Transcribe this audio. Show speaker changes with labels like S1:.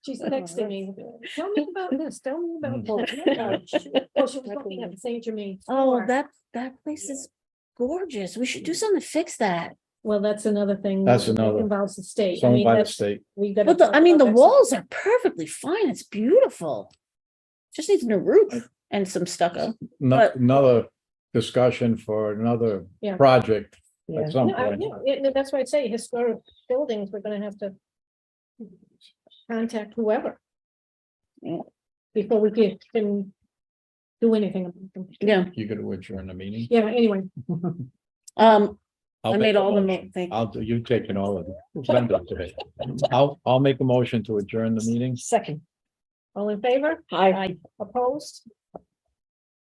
S1: She's texting me, tell me about this, tell me about. that." Well, she was looking at Saint Germain.
S2: Oh,
S1: Square.
S2: that, that place is gorgeous. We should do something to fix that.
S1: Well, that's another thing.
S3: That's
S1: that
S3: another-
S1: Involves the state. I
S3: It's owned
S1: mean,
S3: by the
S1: that's,
S3: state.
S1: we gotta.
S2: But the,
S1: talk
S2: I mean, the
S1: about that some-
S2: walls are perfectly fine. It's beautiful. Just needs a new roof and some stucco.
S3: No-
S2: but-
S3: Another discussion for another
S1: Yeah.
S3: project
S2: Yeah.
S3: at some
S1: No, I-
S3: point.
S1: no, it- no, that's why I say historic buildings, we're gonna have to. Contact whoever.
S2: Yeah.
S1: Before we can, can. Do anything. about them.
S2: Yeah,
S3: You could adjourn the meeting.
S1: Yeah, anyway,
S2: um,
S3: I'll
S2: I
S3: make
S2: made
S3: a
S2: all the,
S3: motion.
S2: mo- thank,
S3: I'll, do- you've taken all of it. Linda today. I'll, I'll make a motion to adjourn the meeting.
S2: second.
S1: all in favor,
S2: Hi.
S1: opposed,